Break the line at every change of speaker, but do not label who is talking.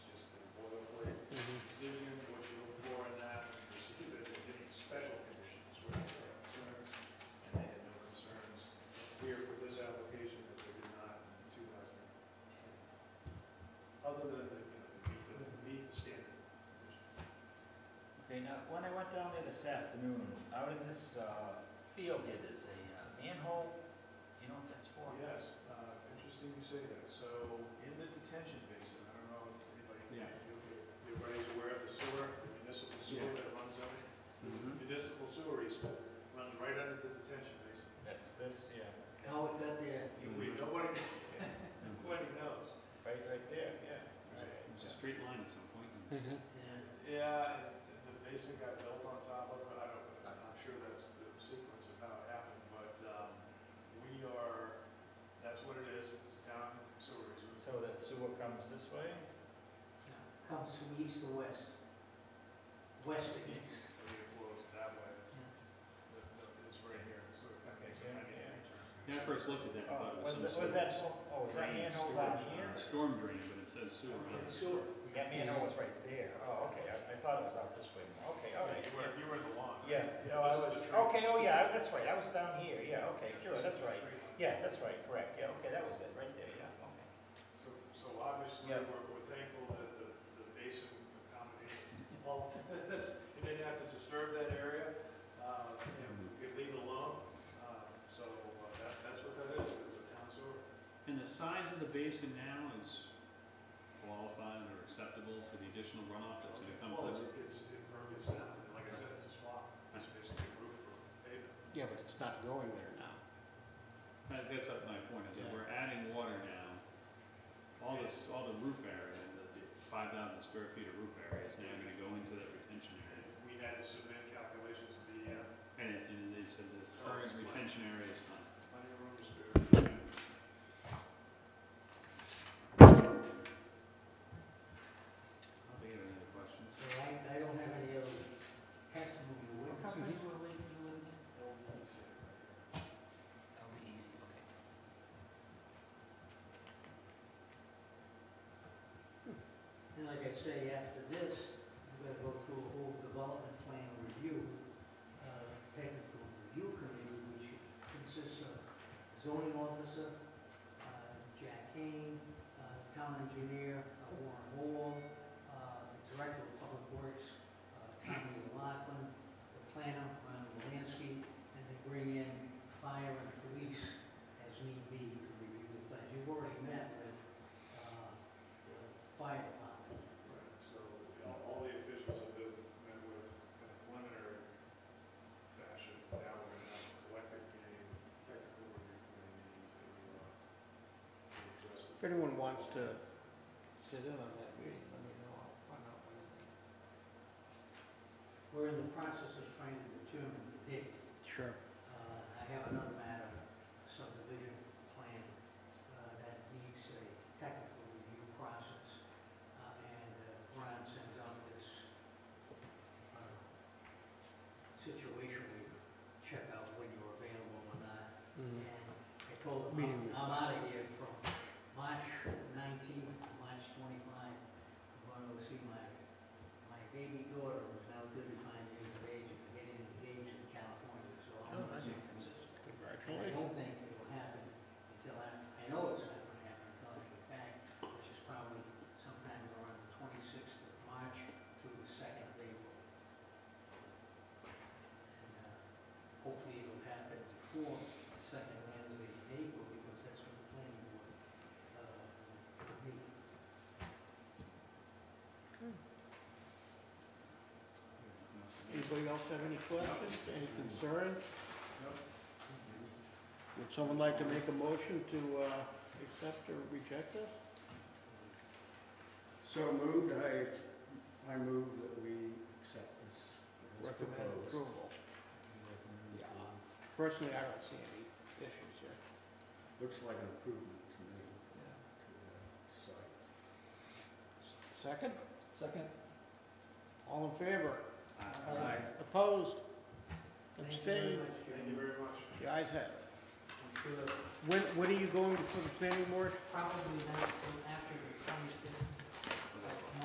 Mm-hmm.
mean, uh, when I went down there this afternoon, out in this uh, field here, there's a uh, manhole, do you know what that's for?
Yes, uh, interesting you say that. So in the detention basin, I don't know if anybody,
Yeah.
if everybody's aware of the sewer, the municipal sewer that runs under it. This
Mhm.
municipal sewer is, runs right under the detention basin.
That's this, yeah,
How it got there?
You- we- Nobody, nobody knows.
right, right there.
Yeah,
It was a
yeah.
straight line at some point.
Hmm.
Mm-hmm.
Yeah.
Yeah, and- and the basin got built on top of it, I don't, I'm not sure that's the sequence of how it happened, but um, we are, that's what it is, it's a town sewer. resource.
So the sewer comes this way?
Comes from east to west. West to east.
I mean, it flows that way, but it's right here, so it kind of makes a ninety
Yeah, I first looked at that, I thought
Oh,
it was
was that, was
some sort of
that, oh, was that manhole down here?
Storm drain, but it says sewer on it.
Sewer.
That manhole was right there, oh, okay, I, I thought it was out this way, okay, all right.
You were, you were the lawn.
Yeah, no, I was,
This is the tree.
okay, oh, yeah, that's right, I was down here, yeah, okay,
Yeah,
sure,
this is
that's
the
right.
tree.
Yeah, that's right, correct, yeah, okay, that was it, right there, yeah, okay.
So, so obviously,
Yeah.
we're, we're thankful that the, the basin accommodated all of this. It didn't have to disturb that area, uh, you know, we could leave it alone. Uh, So uh, that, that's what that is, it's a town sewer.
And the size of the basin now is qualified or acceptable for the additional runoff that's gonna come
Well, it's,
forward?
it's impervious now, and like I said, it's a swamp, it's basically a roof for pavement.
Yeah, but it's not going there now.
That- That's up my point, is that we're adding water now. All this, all the roof area, the five thousand square feet of roof area is now gonna go into that retention area.
We had to submit calculations of the uh,
And it- And they said the current retention area is fine.
money room
I don't think I have any other questions.
So I, I don't have any other testimony. What company were we, you were in?
Oh, That'll be easy, okay.
And like I say, after this, I'm gonna go through a whole development plan review, uh, technical review committee, which consists of zoning officer, uh, Jack Kane, uh, town engineer, uh, Warren Wall, uh, the director of public works, uh, Tommy Lockland, the planner, Ron Walansky, and they bring in fire and police as need be to review the plans. You've already met with, uh, the fire department.
Right, so you know, all the officials have been met with in a preliminary fashion. Now we're gonna have a collective meeting, technical review committee meeting to, uh, to address.
If
the-
anyone wants to sit in on that meeting, let me know, I'll find out when it
We're in the process of trying to determine the date.
is. Sure.
Uh, I have another matter, subdivision plan, uh, that needs a technical review process. Uh, And uh, Ron sends out this uh, situation, we check out when you're available or not. And I told
Meeting
him,
with-
I'm out of here from March 19th to March 25. I'm going to see my, my baby daughter who's now 35 years of age and getting engaged in California, so I'm
Oh,
in
nice.
San Francisco. And I
Congratulations.
don't think it'll happen until after, I know it's not gonna happen until I get back, which is probably sometime around the twenty-sixth of March through the second of April. And uh, Hopefully it'll happen before the second Wednesday of April, because that's when the planning board, uh, will meet.
Anything else?
Anybody else have any questions, any concerns?
Nope.
Would someone like to make a motion to uh, accept or reject this?
So moved, I, I move that we accept this. as
Recommend
proposed.
approval.
Recommend approval.
Personally, I don't see any issues here.
Looks like an improvement to me, to the site.
Second? Second. All in favor?
Aye.
Opposed?
Thank you very
Abstained?
much,
Thank you
Jerry.
very much.
The ayes have it.
I'm sure
When, when are you going for the planning board?
probably not until after the twenty-fifth